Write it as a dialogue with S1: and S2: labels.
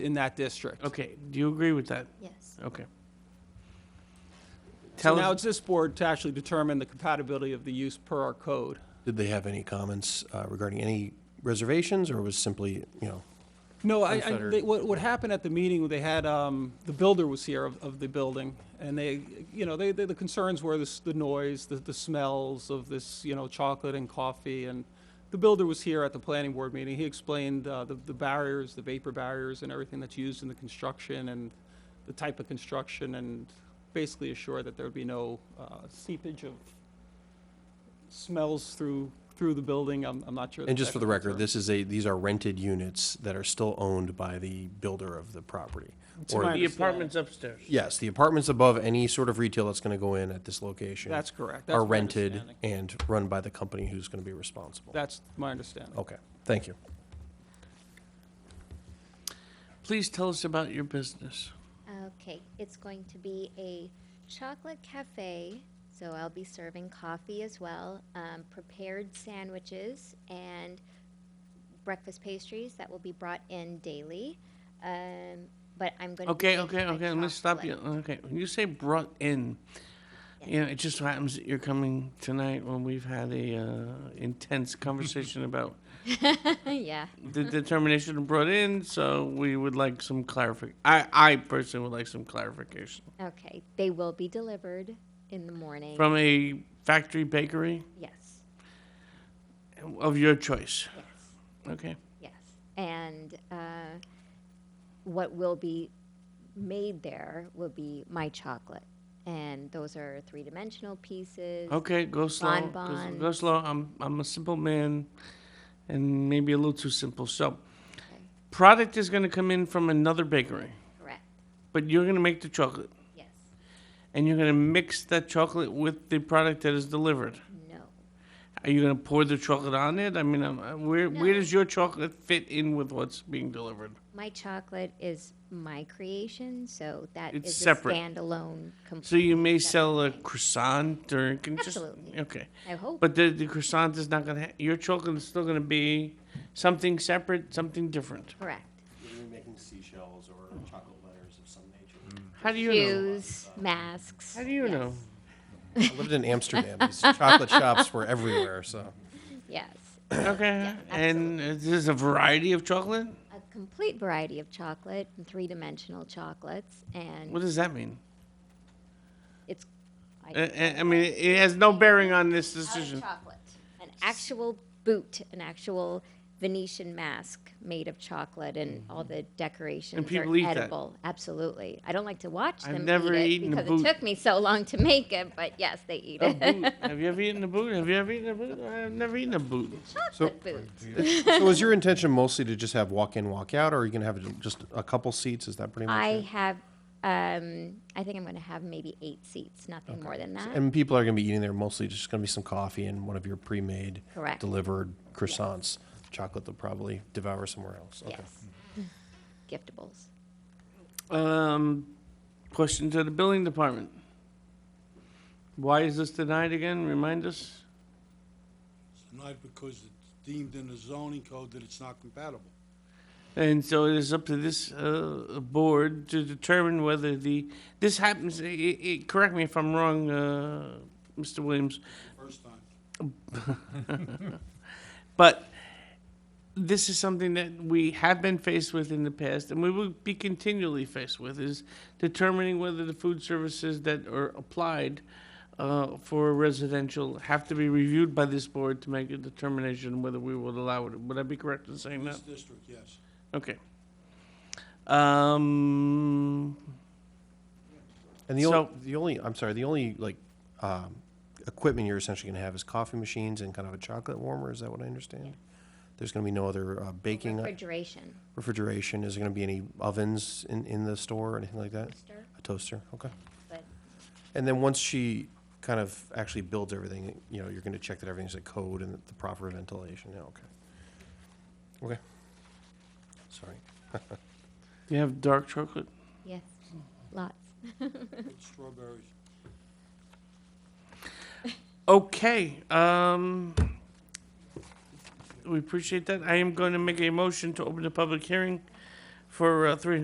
S1: in that district.
S2: Okay, do you agree with that?
S3: Yes.
S2: Okay.
S1: So
S2: Tell
S1: now
S2: us,
S1: it's this board to actually determine the compatibility of the use per our code.
S4: Did they have any comments uh, regarding any reservations, or was simply, you know,
S1: No, I, I,
S4: Unfettered.
S1: they- what, what happened at the meeting, they had, um, the builder was here of, of the building, and they, you know, they, they- the concerns were this, the noise, the, the smells of this, you know, chocolate and coffee, and the builder was here at the planning board meeting, he explained, uh, the, the barriers, the vapor barriers and everything that's used in the construction, and the type of construction, and basically assured that there would be no, uh, seepage of smells through, through the building, I'm, I'm not sure.
S4: and just
S1: that's
S4: for the
S1: actually concerned.
S4: record, this is a, these are rented units that are still owned by the builder of the property.
S1: To
S4: Or,
S1: my-
S2: the apartment's upstairs.
S4: yes, the apartments above any sort of retail that's going to go in at this location
S1: That's correct. That's
S4: are
S1: my
S4: rented
S1: understanding.
S4: and run by the company who's going to be responsible.
S1: That's my understanding.
S4: Okay, thank you.
S2: Please tell us about your business.
S3: Okay, it's going to be a chocolate cafe, so I'll be serving coffee as well, um, prepared sandwiches, and breakfast pastries that will be brought in daily. Um, but I'm going to
S2: Okay, okay, okay, I'm gonna stop you, okay, when you say brought in, you know, it just so happens that you're coming tonight when we've had a, uh, intense conversation about
S3: yeah.
S2: the determination of brought in, so we would like some clarific, I, I personally would like some clarification.
S3: Okay, they will be delivered in the morning.
S2: From a factory bakery
S3: yes,
S2: of your choice,
S3: yes.
S2: okay?
S3: Yes, and uh, what will be made there will be my chocolate, and those are three-dimensional pieces.
S2: Okay, go slow. go-
S3: Bonbons.
S2: Go slow. I'm I'm a simple man, and maybe a little too simple. So, product is going to come in from another bakery,
S3: Correct.
S2: but you're going to make the chocolate,
S3: Yes.
S2: and you're going to mix that chocolate with the product that is delivered.
S3: No.
S2: Are you going to pour the chocolate on it? I mean, um, uh, where where
S3: No.
S2: does your chocolate fit in with what's being delivered?
S3: My chocolate is my creation, so that
S2: It's
S3: is
S2: separate.
S3: a standalone. Complete
S2: So you may
S3: separate
S2: sell a
S3: thing.
S2: croissant or it can just
S3: Absolutely.
S2: okay.
S3: I hope.
S2: But the, the croissant is not going to. Ha- your chocolate is still going to be something separate, something different.
S3: Correct.
S4: Are making seashells or chocolate letters of some nature?
S2: How do you know?
S3: Shoes, masks.
S2: How do you
S3: yes,
S2: know?
S4: I lived in Amsterdam. These chocolate shops were everywhere, so.
S3: Yes,
S2: Okay, and uh, there's a variety of chocolate?
S3: a complete variety of chocolate and three-dimensional chocolates, and
S2: What does that mean?
S3: it's. I
S2: Uh, uh, I mean, it has no bearing on this decision.
S3: chocolate. An actual boot, an actual Venetian mask made of chocolate and all the decorations
S2: Mm-hmm. people
S3: are
S2: eat that.
S3: edible. Absolutely. I don't like to watch
S2: I've
S3: them
S2: never
S3: eat it
S2: eaten a
S3: because
S2: boot.
S3: it took me so long to make it, but yes, they
S4: Oh,
S3: eat
S2: A
S3: it.
S2: boot. Have you ever eaten a boot? Have you ever eaten a boot? I've never eaten a boot.
S3: Chocolate boot.
S4: So is your intention mostly to just have walk in, walk out, or are you gonna have just a couple seats? Is that pretty much
S3: I
S4: it?
S3: have um, I think I'm going to have maybe 8 seats, nothing more than that.
S4: And people are gonna be eating there mostly just gonna be some coffee and one of your pre-made,
S3: Correct.
S4: delivered croissants. Chocolate they'll probably devour somewhere else. Okay.
S3: Yes. Giftables.
S2: Um, question to the building department. Why is this denied again? Remind us.
S5: Not because it's deemed in the zoning code that it's not compatible.
S2: And so it is up to this uh, board to determine whether the, this happens, i i i correct me if I'm wrong, uh, Mr. Williams,
S5: First time.
S2: But this is something that we have been faced with in the past, and we will be continually faced with, is determining whether the food services that are applied uh, for residential have to be reviewed by this board to make a determination whether we would allow it. Would I be correct in saying
S5: In
S2: that?
S5: this district, yes.
S2: Okay. Um,
S4: And the
S2: So-
S4: only, the only, I'm sorry, the only like, um, equipment you're essentially gonna have is coffee machines and kind of a chocolate warmer, is that what I understand? There's gonna be no other uh, baking,
S3: Refrigeration.
S4: refrigeration, is there gonna be any ovens in, in the store or anything like that?
S3: Toaster.
S4: A toaster, okay.
S3: But
S4: And then once she kind of actually builds everything, you know, you're gonna check that everything's in code and the proper ventilation, yeah, okay. Okay. Sorry.
S2: you have dark chocolate?
S3: yes. Lots.
S5: With strawberries.
S2: Okay, um, we appreciate that. I am going to make a motion to open the public hearing for uh, three